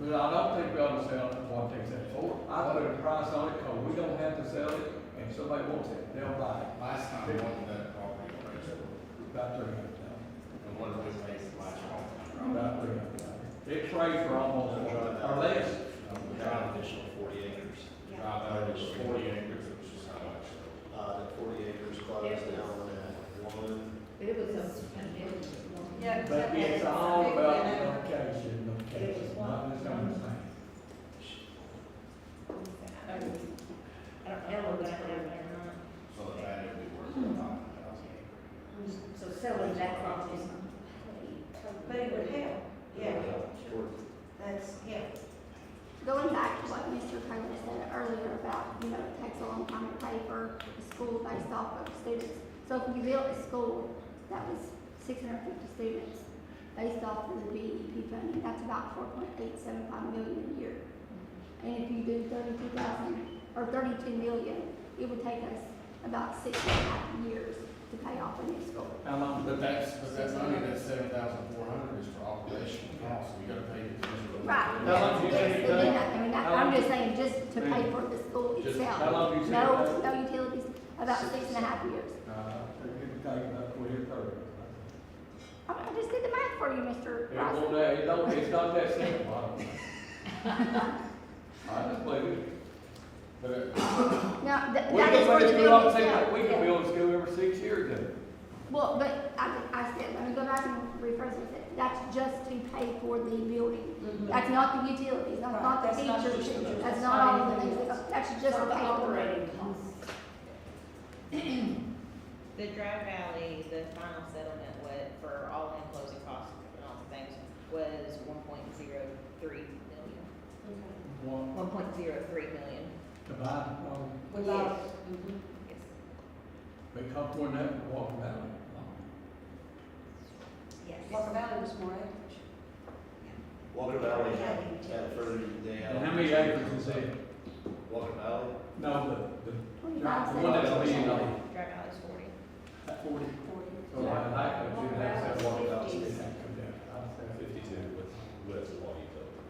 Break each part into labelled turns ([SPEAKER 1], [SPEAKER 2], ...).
[SPEAKER 1] But I don't think we ought to sell it before it takes that forward. I put a price on it, cause we don't have to sell it, and if somebody wants it, they'll buy it.
[SPEAKER 2] Last time, we wanted that property appraisal,
[SPEAKER 1] About three hundred thousand,
[SPEAKER 2] and one of the ways last time.
[SPEAKER 1] about three hundred thousand. It trades for almost, or less.
[SPEAKER 2] um, We got an additional forty acres.
[SPEAKER 3] Yeah.
[SPEAKER 2] Drive out of this forty acres, which is how much.
[SPEAKER 4] Uh, the forty acres closed down at one,
[SPEAKER 5] But it was, a- and it was.
[SPEAKER 3] Yeah, because
[SPEAKER 1] But
[SPEAKER 3] that
[SPEAKER 1] it's
[SPEAKER 3] had
[SPEAKER 1] all
[SPEAKER 3] big
[SPEAKER 1] about
[SPEAKER 3] winner.
[SPEAKER 1] location, location, not this kind of thing.
[SPEAKER 5] I don't know what that is.
[SPEAKER 2] So the value would be worth about a thousand acres.
[SPEAKER 5] Hmm. So selling that property is.
[SPEAKER 3] But it would help, yeah,
[SPEAKER 4] short
[SPEAKER 3] that's, yeah.
[SPEAKER 6] Going back to what Mr. Coleman said earlier about, you know, it takes a long time to pay for a school based off of students. So if you built a school that was six hundred fifty students based off of the BEP funding, that's about four point eight seven five million a year. And if you do thirty-two thousand, or thirty-two million, it would take us about six and a half years to pay off a new school.
[SPEAKER 1] How long?
[SPEAKER 2] But that's, but that money, that seven thousand four hundred is for operational costs, we gotta pay the commission.
[SPEAKER 6] Right.
[SPEAKER 1] How long do you
[SPEAKER 6] Yes,
[SPEAKER 1] think it
[SPEAKER 6] but then
[SPEAKER 1] takes?
[SPEAKER 6] I- I mean,
[SPEAKER 1] How
[SPEAKER 6] I-
[SPEAKER 1] long
[SPEAKER 6] I'm
[SPEAKER 1] do
[SPEAKER 6] just saying, just to pay for the school
[SPEAKER 2] Just
[SPEAKER 6] itself.
[SPEAKER 1] how long do you think it
[SPEAKER 6] No,
[SPEAKER 1] takes?
[SPEAKER 6] no utilities, about six and a half years.
[SPEAKER 1] Uh, it could take about twenty or thirty.
[SPEAKER 6] I mean, I just did the math for you, Mr.
[SPEAKER 1] It
[SPEAKER 6] Price.
[SPEAKER 1] won't, it don't, it's not that simple. I just believe it.
[SPEAKER 2] But it,
[SPEAKER 6] Now, th-
[SPEAKER 1] We
[SPEAKER 6] that is
[SPEAKER 1] can build a
[SPEAKER 6] for the building
[SPEAKER 1] school,
[SPEAKER 6] itself.
[SPEAKER 1] we can build a school every six years, then.
[SPEAKER 6] Well, but I, I said, let me go back and rephrase what I said. That's just to pay for the building. That's not the utilities,
[SPEAKER 3] Mm-hmm.
[SPEAKER 6] that's
[SPEAKER 3] Right,
[SPEAKER 6] not the
[SPEAKER 3] that's not the
[SPEAKER 6] teachers,
[SPEAKER 3] teachers,
[SPEAKER 6] that's
[SPEAKER 3] that's
[SPEAKER 6] not all
[SPEAKER 3] not
[SPEAKER 6] of the
[SPEAKER 3] anything
[SPEAKER 6] things.
[SPEAKER 3] else.
[SPEAKER 6] That's just to
[SPEAKER 5] For the
[SPEAKER 6] pay for it.
[SPEAKER 5] operating costs.
[SPEAKER 7] The Dry Valley, the final settlement was, for all enclosing costs and all the things, was one point zero three million.
[SPEAKER 1] One,
[SPEAKER 7] One point zero three million.
[SPEAKER 1] to buy the property,
[SPEAKER 3] Without,
[SPEAKER 5] Mm-hmm.
[SPEAKER 7] Yes.
[SPEAKER 1] because we're never walking down
[SPEAKER 3] Walker Valley was more acreage.
[SPEAKER 4] Walker Valley had, had further, they
[SPEAKER 1] it.
[SPEAKER 4] had.
[SPEAKER 1] And how many acres is it?
[SPEAKER 4] Walker Valley,
[SPEAKER 1] No, the, the, the
[SPEAKER 6] Twenty-five
[SPEAKER 1] one that's a million
[SPEAKER 6] cents.
[SPEAKER 1] dollars,
[SPEAKER 7] Dry Valley's
[SPEAKER 1] forty.
[SPEAKER 7] forty.
[SPEAKER 1] So Oh, I like that, you have that one thousand, it had to come down. I'd say fifty.
[SPEAKER 8] fifty-two with, with the law utilities.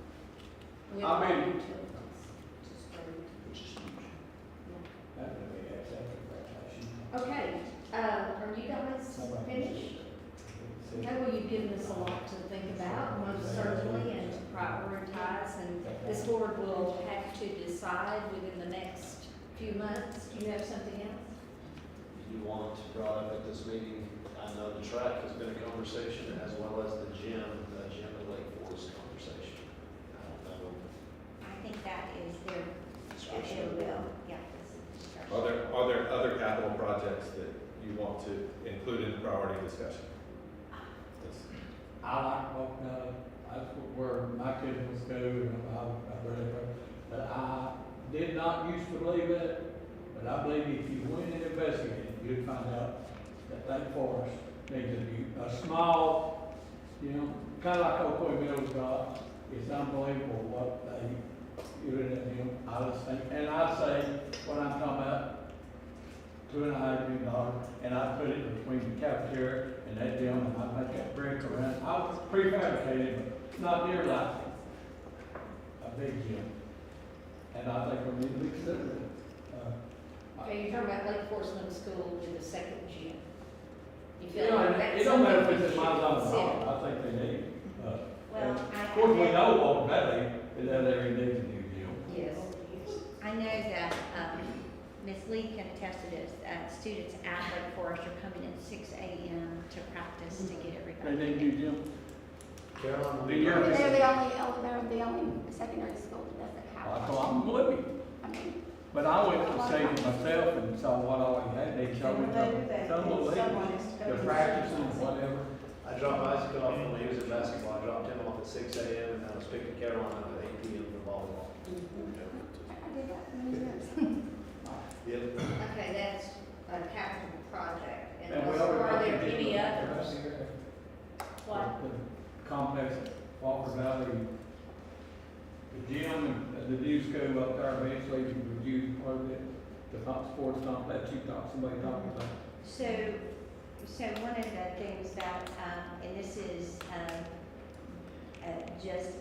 [SPEAKER 1] I mean-
[SPEAKER 4] which is huge.
[SPEAKER 1] That would be excellent.
[SPEAKER 5] Okay, uh, are you guys finished? I know you've given us a lot to think about, most certainly, and to prioritize, and this board will have to decide within the next few months. Do you have something else?
[SPEAKER 4] You want to brought up at this meeting, I know the track has been a conversation as well as the gym, the gym at Lake Forest conversation. I don't know.
[SPEAKER 3] I think that is their,
[SPEAKER 4] description.
[SPEAKER 3] yeah.
[SPEAKER 8] Are there, are there other capital projects that you want to include in the priority discussion? That's-
[SPEAKER 1] I like walking out, of- that's what- where my kids was go, and I, I really, but I did not used to believe it, but I believe if you went and investigated, you'd find out that Lake Forest needs a new, a small, you know, kinda like Oakwood Mills got, it's unbelievable what they, you know, I was thinking, and I say, what I'm talking about, two and a half million dollars, and I put it between the cafeteria and that gym, and I make that brick around. I was prefabricated, but not near like a big gym. And I think we need to consider it. Uh, I-
[SPEAKER 5] Okay, you're talking about Lake Forest Middle School with the second gym. You
[SPEAKER 1] You
[SPEAKER 5] feel
[SPEAKER 1] know,
[SPEAKER 5] like
[SPEAKER 1] and
[SPEAKER 5] that's
[SPEAKER 1] it don't matter
[SPEAKER 5] something
[SPEAKER 1] if
[SPEAKER 5] we
[SPEAKER 1] it's in my
[SPEAKER 5] should
[SPEAKER 1] zone at
[SPEAKER 5] consider?
[SPEAKER 1] all, I think they need, it. uh,
[SPEAKER 3] Well, I.
[SPEAKER 1] of course, we know already that that area needs a new gym.
[SPEAKER 5] Yes.
[SPEAKER 9] I know that, um, Ms. Lee can attest to this, uh, students at Lake Forest are coming in six AM to practice to get everybody.
[SPEAKER 1] They need a new gym.
[SPEAKER 4] Caroline.
[SPEAKER 1] Do you-
[SPEAKER 6] They're the only, ele- they're the only secondary school that doesn't
[SPEAKER 1] I
[SPEAKER 6] have one.
[SPEAKER 1] thought, I'm living.
[SPEAKER 6] I mean,
[SPEAKER 1] But I went to save it myself and saw what all we had, they showed me the, some of the leaders, the practice and whatever.
[SPEAKER 4] I dropped Isaac off when he was in basketball, I dropped him off at six AM and I was picking Caroline up at eight PM for volleyball.
[SPEAKER 6] I I did that many years.
[SPEAKER 4] Yep.
[SPEAKER 5] Okay, that's a capital project.
[SPEAKER 1] And we
[SPEAKER 5] was-
[SPEAKER 1] already
[SPEAKER 5] Are there
[SPEAKER 1] got the-
[SPEAKER 5] any others? What?
[SPEAKER 1] The Complex, at Walker Valley, the gym, and the new school up there, eventually you reduce part of it, the top sports complex, you talked, somebody talking about.
[SPEAKER 9] So, so one of the things that, um, and this is, um, uh, just